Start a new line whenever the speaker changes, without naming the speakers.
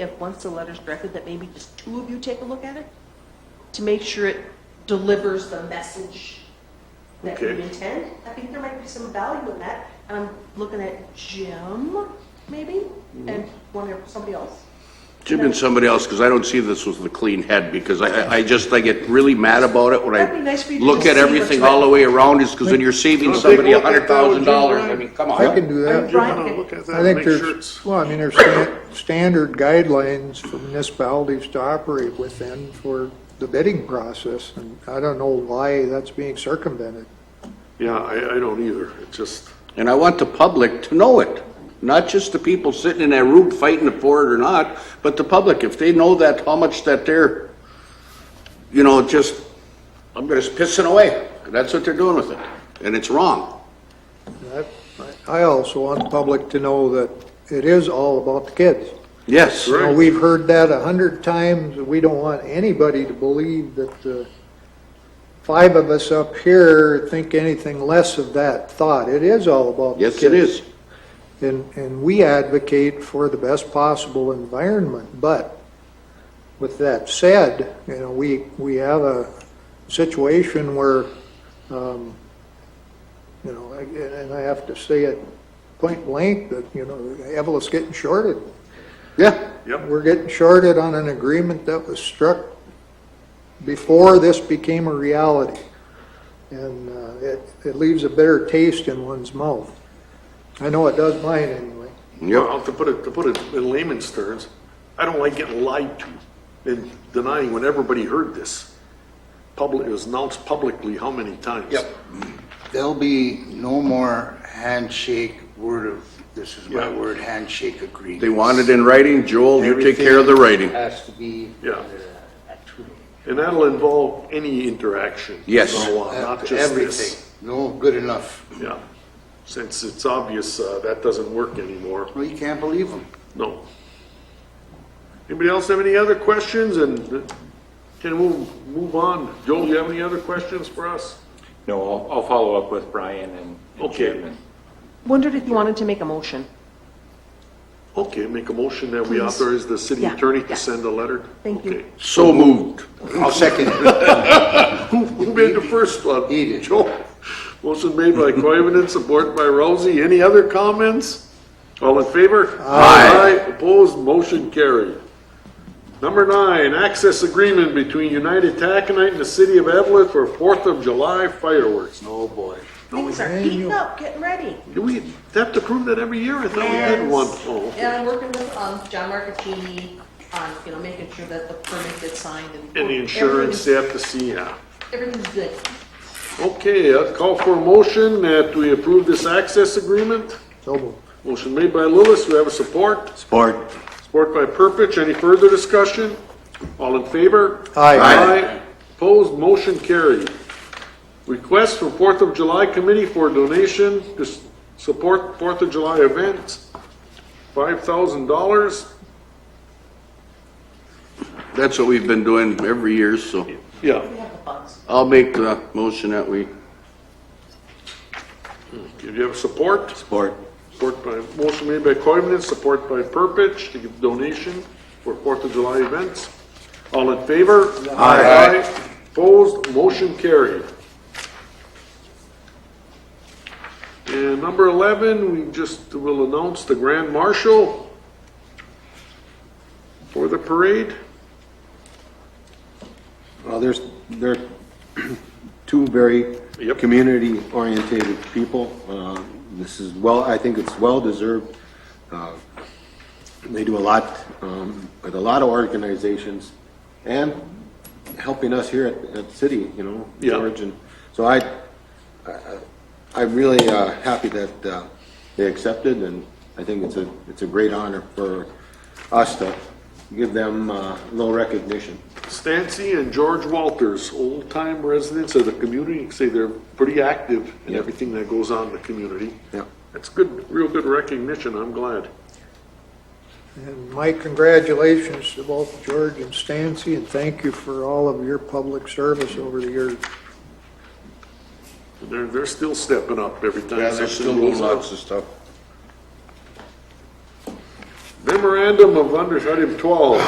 if, once the letter's drafted, that maybe just two of you take a look at it to make sure it delivers the message that you
Okay.
intend. I think there might be some value in that. And I'm looking at Jim, maybe,
Mm-hmm.
and one of somebody else.
Jim and somebody else, because I don't see this with a clean head, because I, I just, I get really mad about it when
That'd be nice for
I
you to
look
just
at
see
everything
what's
all the way around, is because then you're saving
Wanna
somebody
take a look
a hundred
at that
thousand
with Jim
dollars, I
Ryan?
mean, come on.
I can do that.
Brian,
I'll
can-
look at that
I
and
think
make sure it's-
there's, well, I mean, there's stan- standard guidelines for municipalities to operate within for the bidding process, and I don't know why that's being circumvented.
Yeah, I, I don't either. It just,
And I want the public to know it, not just the people sitting in that room fighting for it or not, but the public, if they know that, how much that they're, you know, just, I'm gonna pissing away. That's what they're doing with it, and it's wrong.
That- I I also want the public to know that it is all about the kids.
Yes.
You know, we've heard that a hundred times, and we don't want anybody to believe that the five of us up here think anything less of that thought. It is all about the
Yes,
kids.
it is.
And, and we advocate for the best possible environment, but with that said, you know, we, we have a situation where, um, you know, I- and I have to say it point blank, that, you know, Evelyn's getting shorted.
Yeah.
yep,
We're getting shorted on an agreement that was struck before this became a reality. And uh, it, it leaves a bitter taste in one's mouth. I know it does mine anyway.
Yep.
well, to put it, to put it in layman's terms, I don't like getting lied to and denying when everybody heard this. Public, it was announced publicly how many times?
Yep. There'll be no more handshake word of, this is my
Yeah.
word, handshake agreement.
They want it in writing, Joel, you take care of the writing.
Has to be.
Yeah.
uh, actually,
And that'll involve any interaction.
Yes.
from now
Uh,
on, Not just
Everything.
this.
No, good enough.
Yeah. Since it's obvious, uh, that doesn't work anymore.
Well, you can't believe them.
No. Anybody else have any other questions? And uh, can we move on? Joel, you have any other questions for us?
No, I'll, I'll follow up with Brian and and
Okay.
Jim. and-
Wondered if you wanted to make a motion.
Okay, make a motion that we
Please.
authorize the city
Yeah,
attorney
yeah.
to send a letter?
Thank you.
Okay.
So moved.
I'll second it.
Who, who made the first one?
He did.
Joel. Motion made by Coivinon, support by Rousey. Any other comments? All in favor?
Aye.
Opposed, motion carried. Number nine, access agreement between United Taconite and the city of Evelyn for Fourth of July fireworks.
Oh, boy.
Things are heating up, getting ready.
Do we have to prove that every year? I thought we had one. Oh,
And I'm working with, um, John Marcatini on, you know, making sure that the permit gets signed and.
And the insurance, they have to see, yeah.
Everything's good.
Okay, I'll call for a motion that we approve this access agreement.
So moved.
Motion made by Lewis, do we have a support?
Support.
Support by Purpich, any further discussion? All in favor?
Aye.
Aye.
Opposed, motion carried. Request from Fourth of July Committee for donation to s- support Fourth of July events, five thousand dollars.
That's what we've been doing every year, so
Yeah.
We have the funds.
I'll make the motion that we
Do you have support?
support.
Support by, motion made by Coivinon, support by Purpich to give donation for Fourth of July events. All in favor? Aye. Opposed, motion carried. And number 11, we just will announce the grand marshal for the parade.
Well, there's, there are two very
Yep.
community-oriented people. Uh, This is well, I think it's well-deserved. Uh, They do a lot um, with a lot of organizations and helping us here at, at City, you know,
Yeah.
George. and So I, I- I'm really uh, happy that uh, they accepted, and I think it's a, it's a great honor for us to give them uh, a little recognition.
Stancy and George Walters, old-time residents of the community, say they're pretty active in
Yep.
everything that goes on in the community.
Yep.
That's good, real good recognition, I'm glad.
And my congratulations to both George and Stancy, and thank you for all of your public service over the years.
They're, they're still stepping up every time.
Yeah, they're
something
still
goes
doing
on.
lots of stuff.
Then memorandum of under item 12.